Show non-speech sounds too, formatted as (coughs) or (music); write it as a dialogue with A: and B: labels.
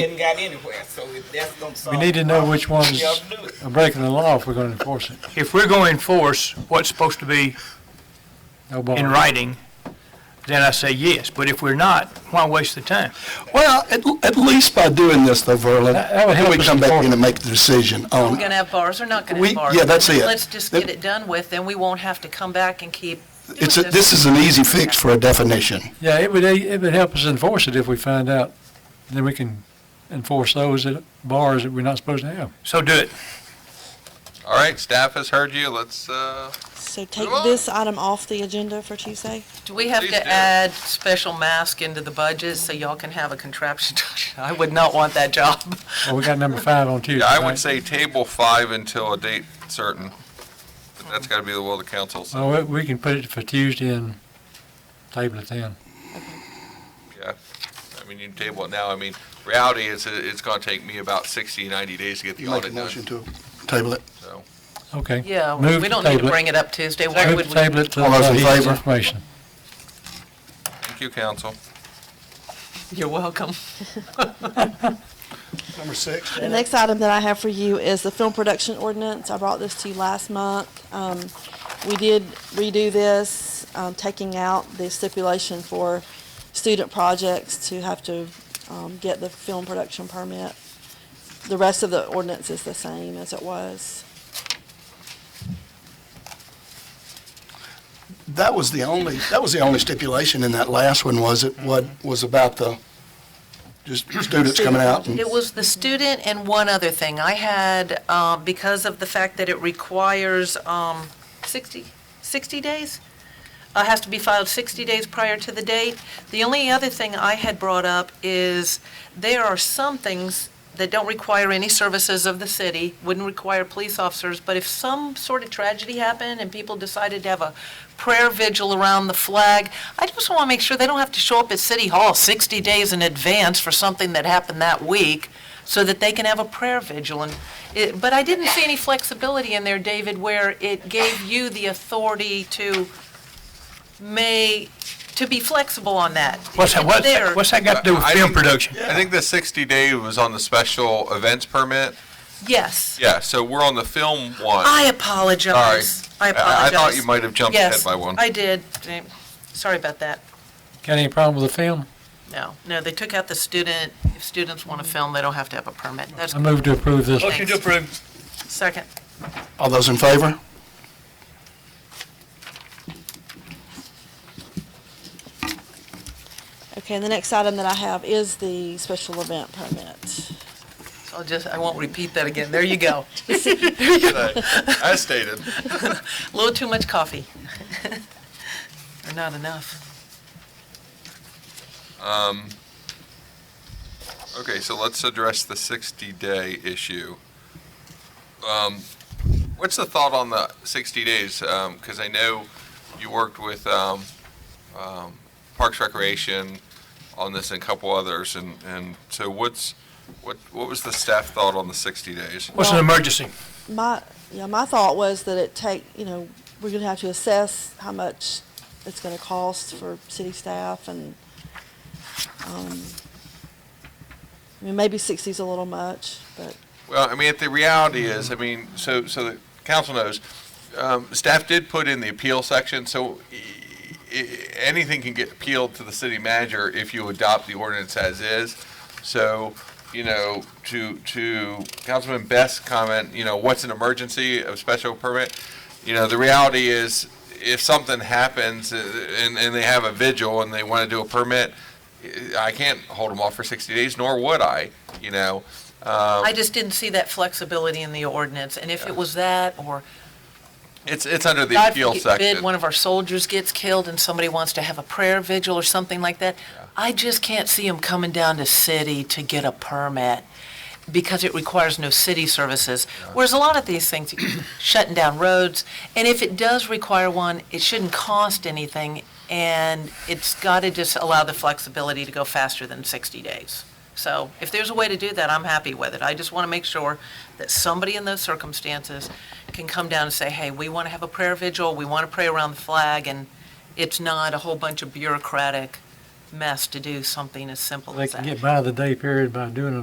A: hadn't got anywhere, so if that's gonna solve.
B: We need to know which ones
A: Yeah, I'll do it.
B: are breaking the law if we're going to enforce it.
C: If we're going to enforce what's supposed to be
B: No ball.
C: in writing, then I say yes. But if we're not, why waste the time?
D: Well, at, at least by doing this though, Verlin,
B: That- that would help
D: then we
B: us
D: come back
B: inform.
D: in and make the decision
E: Are we
D: on,
E: going to have bars or not going to
D: We-
E: have bars?
D: yeah, that's it.
E: Let's just get it done with, then we won't have to come back and keep. doing
D: it's, a- this is an easy fix for a definition.
B: Yeah, it would, it would help us enforce it if we find out, then we can enforce those at bars that we're not supposed to have.
C: So do it.
F: All right, staff has heard you. Let's, uh,
G: So take
F: Move on.
G: this item off the agenda for Tuesday.
E: Do we have
F: Please do.
E: to add special mask into the budget so y'all can have a contraption? (laughs) I would not want that job.
B: Well, we got number five on Tuesday,
F: yeah, I
B: right?
F: would say table five until a date certain. But That's gotta be the will of the council, so,
B: Well, we we can put it for Tuesday and table it then.
C: Oh.
F: yeah. I mean, you can table it now. I mean, reality is, it- it's gonna take me about 60, 90 days to get the
D: You make a
F: audit
D: motion
F: done,
D: to table it.
F: so.
B: Okay.
E: Yeah, we
B: Move
E: we don't need
B: table
E: to
B: it.
E: bring it up Tuesday. Why
B: Move
E: would
B: to
E: we?
B: table it till
D: All those in
B: he gets
D: favor?
B: information.
F: Thank you, council.
E: You're welcome.
D: Number six.
G: The next item that I have for you is the film production ordinance. I brought this to you last month. Um, we did redo this, um, taking out the stipulation for student projects to have to, um, get the film production permit. The rest of the ordinance is the same as it was.
D: That was the only, that was the only stipulation in that last one, was it? What was about the, just students coming out and,
E: It was the student and one other thing. I had, uh, because of the fact that it requires um, 60, 60 days, uh, has to be filed 60 days prior to the date. The only other thing I had brought up is there are some things that don't require any services of the city, wouldn't require police officers, but if some sort of tragedy happened and people decided to have a prayer vigil around the flag, I just want to make sure they don't have to show up at City Hall 60 days in advance for something that happened that week, so that they can have a prayer vigil. And it- But I didn't see any flexibility in there, David, where it gave you the authority to may, to be flexible on that.
C: What's that, what's
E: There.
C: that, what's that got to do with
F: I
C: film
F: think-
C: production?
F: I think the 60 day was on the special events permit.
E: Yes.
F: Yeah, so we're on the film one.
E: I apologize. I apologize.
F: I thought you might have jumped ahead
E: Yes,
F: by one.
E: I did. Eh, Sorry about that.
B: Got any problem with the film?
E: No, no, they took out the student, if students want to film, they don't have to have a permit. That's
B: I move to approve this.
E: Motion to
C: approve.
E: second.
D: all those in favor?
G: Okay, and the next item that I have is the special event permit.
E: So I'll just, I won't repeat that again. There you go. (laughs)
F: I stated.
E: A little too much coffee. Or not enough.
F: Um, Okay, so let's address the 60-day issue. Um, What's the thought on the 60 days? Because I know you worked with um, um, Parks Recreation on this and a couple others, and, and so what's, what, what was the staff thought on the 60 days?
C: What's an
G: Well-
C: emergency?
G: My, yeah, my thought was that it take, you know, we're gonna have to assess how much it's gonna cost for city staff and, um, I mean, maybe sixty's a little much, but
F: Well, I mean, the reality is, I mean, so, so the council knows, um, staff did put in the appeal section, so i- i- anything can get appealed to the city manager if you adopt the ordinance as is. So, you know, to, to Councilman Best's comment, you know, what's an emergency of special permit? You know, the reality is, if something happens uh, and, and they have a vigil and they want to do a permit, i- I can't hold them off for 60 days, nor would I, you know? Um,
E: I just didn't see that flexibility in the ordinance, and if it was that, or
F: It's, it's under the
E: God
F: appeal
E: forbid,
F: section.
E: one of our soldiers gets killed and somebody wants to have a prayer vigil or something like that, I just can't see them coming down to city to get a permit because it requires no city services. Whereas a lot of these things,
F: (coughs)
E: shutting down roads, and if it does require one, it shouldn't cost anything, and it's got to just allow the flexibility to go faster than 60 days. So if there's a way to do that, I'm happy with it. I just want to make sure that somebody in those circumstances can come down and say, hey, we want to have a prayer vigil, we want to pray around the flag, and it's not a whole bunch of bureaucratic mess to do something as simple
B: They
E: as
B: can
E: that.
B: get by the day period by doing it.